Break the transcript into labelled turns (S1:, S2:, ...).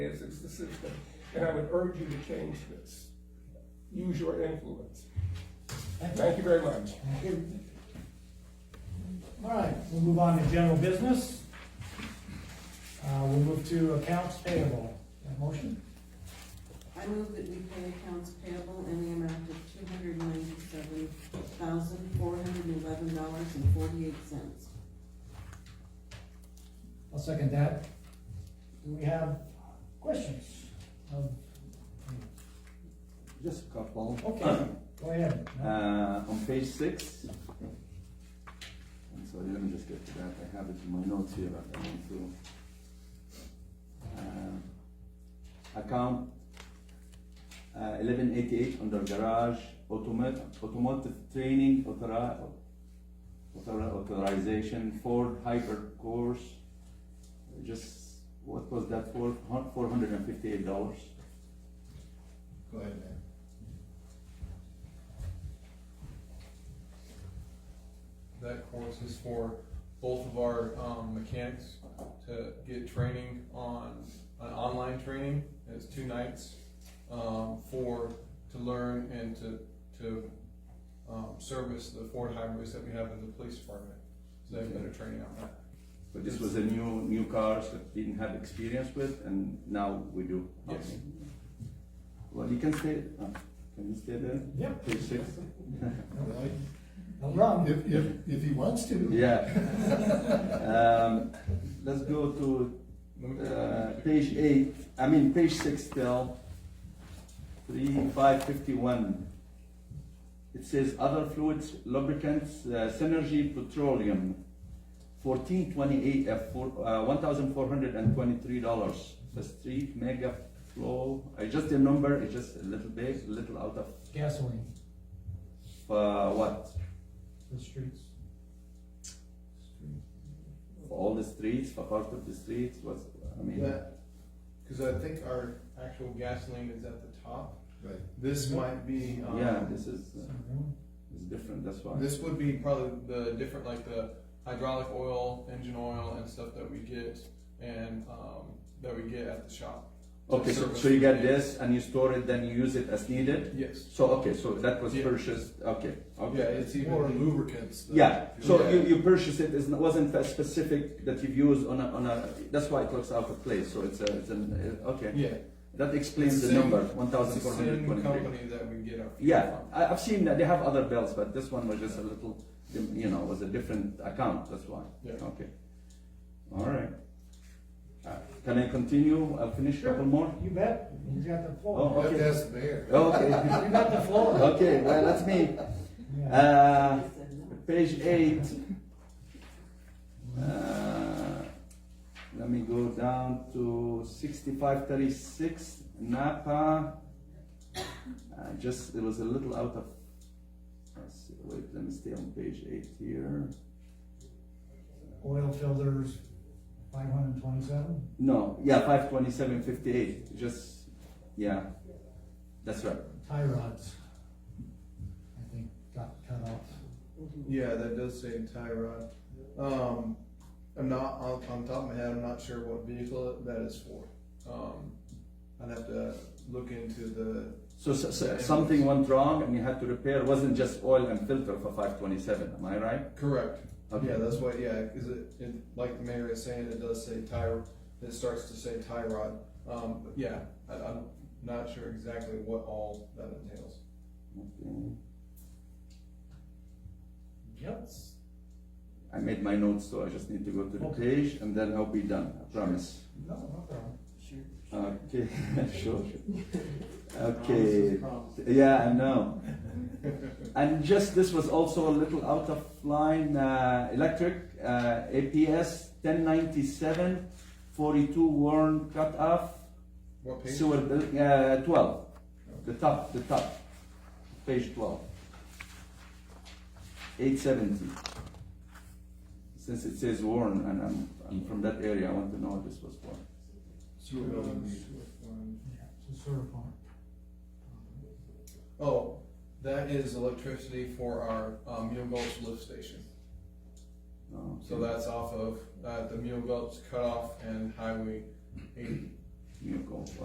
S1: is, it's the system. And I would urge you to change this. Use your influence. Thank you very much.
S2: All right, we'll move on to general business. Uh, we'll move to accounts payable. Got a Motion,
S3: I move that we pay accounts payable in the amount of two hundred ninety-seven thousand, four hundred eleven dollars and forty-eight cents.
S2: I'll second that. Do we have questions? Um,
S4: Just a couple.
S2: Okay, go ahead.
S4: Uh, on page six. And so let me just get to that, I have it in my notes here, but I want to. Uh, Account uh, eleven eighty-eight under garage, automotive, automotive training authori- author- authorization, Ford Hyper Course. Just, what was that for, four hundred and fifty-eight dollars?
S5: Go ahead, man.
S6: that course is for both of our um, mechanics to get training on an online training. It's two nights um, for to learn and to to um, service the Ford hybrids that we have in the police department. So they have better training on that.
S4: But this was a new, new cars that didn't have experience with, and now we do.
S6: Yes.
S4: Okay. Well, you can stay, uh, can you stay there?
S2: Yep.
S4: Page six?
S2: No wrong.
S5: If, if, if he wants to.
S4: Yeah. Um, let's go to,
S6: Let me-
S4: uh, page eight, I mean, page six still. Three, five fifty-one. It says other fluids, lubricants, uh, Synergy Petroleum, fourteen twenty-eight, uh, four, uh, one thousand four hundred and twenty-three dollars. The street mega flow, I just a number, it's just a little bit, a little out of,
S2: Gasoline
S4: uh, what?
S2: for the streets.
S4: For all the streets, for part of the streets, what's, I mean,
S6: Because I think our actual gasoline is at the top.
S5: Right.
S6: This might be um,
S4: yeah, this is, uh,
S2: Something.
S4: it's different, that's why.
S6: This would be probably the different, like the hydraulic oil, engine oil, and stuff that we get and um, that we get at the shop.
S4: Okay, so, so you get this and you store it, then you use it as needed?
S6: Yes.
S4: So, okay, so that was
S6: Yeah.
S4: purchased, okay,
S6: Yeah,
S4: okay.
S6: it's even
S5: Or lubricants. though.
S4: Yeah, so
S6: Yeah.
S4: you, you purchased it, it wasn't a specific that you've used on a, on a, that's why it looks out of place, so it's a, it's an, uh, okay.
S6: yeah.
S4: That explains
S6: It's
S4: the
S6: same-
S4: number, one
S6: It's
S4: thousand
S6: the
S4: four hundred
S6: same
S4: twenty-three.
S6: company that we get our fuel
S4: Yeah,
S6: from.
S4: I, I've seen that, they have other bells, but this one was just a little, you know, was a different account, that's why.
S6: Yeah.
S4: Okay. All right. Uh, Can I continue, I'll finish a couple more?
S2: You bet, you got the
S4: Oh,
S2: floor.
S5: You have
S4: okay.
S5: to ask the mayor.
S4: Okay.
S2: You got the floor.
S4: Okay, well, that's me.
S2: Yeah.
S4: Uh,
S3: I said no.
S4: page eight. Uh, let me go down to sixty-five thirty-six Napa. Uh, just it was a little out of. Let's see, wait, let me stay on page eight here.
S2: Oil filters, five hundred and twenty-seven.
S4: No, yeah, five twenty-seven fifty-eight. Just yeah, that's right.
S2: Tie rods. I think got cut off.
S6: Yeah, that does say tie rod. Um, I'm not on, on top of my head. I'm not sure what vehicle that is for. Um, I'd have to look into the.
S4: So, so, so something went wrong and you had to repair. It wasn't just oil and filter for five twenty-seven. Am I right?
S6: Correct.
S4: Okay.
S6: Yeah, that's what. Yeah, because it, it, like the mayor is saying, it does say tie. It starts to say tie rod. Um, but yeah, I, I'm not sure exactly what all that entails.
S4: Okay.
S2: Yep.
S4: I made my notes, so I just need to go to the
S2: Okay.
S4: page and then I'll be done, I promise.
S2: No, no problem.
S3: Sure.
S4: Okay, sure. Okay, yeah, I know. And just, this was also a little out of line, uh, electric, uh, APS ten ninety-seven, forty-two worn cut off,
S6: What page?
S4: sewer, bill- uh, twelve, the top, the top, page twelve. Eight seventy. Since it says Warren, and I'm, I'm from that area, I want to know what this was for.
S5: Sewer building meter.
S2: Yeah, it's a server farm.
S6: Oh, that is electricity for our um, Mule Gulch lift station.
S4: Oh,
S6: So
S4: okay.
S6: that's off of uh, the Mule Gulch cutoff and Highway 80.
S4: you go.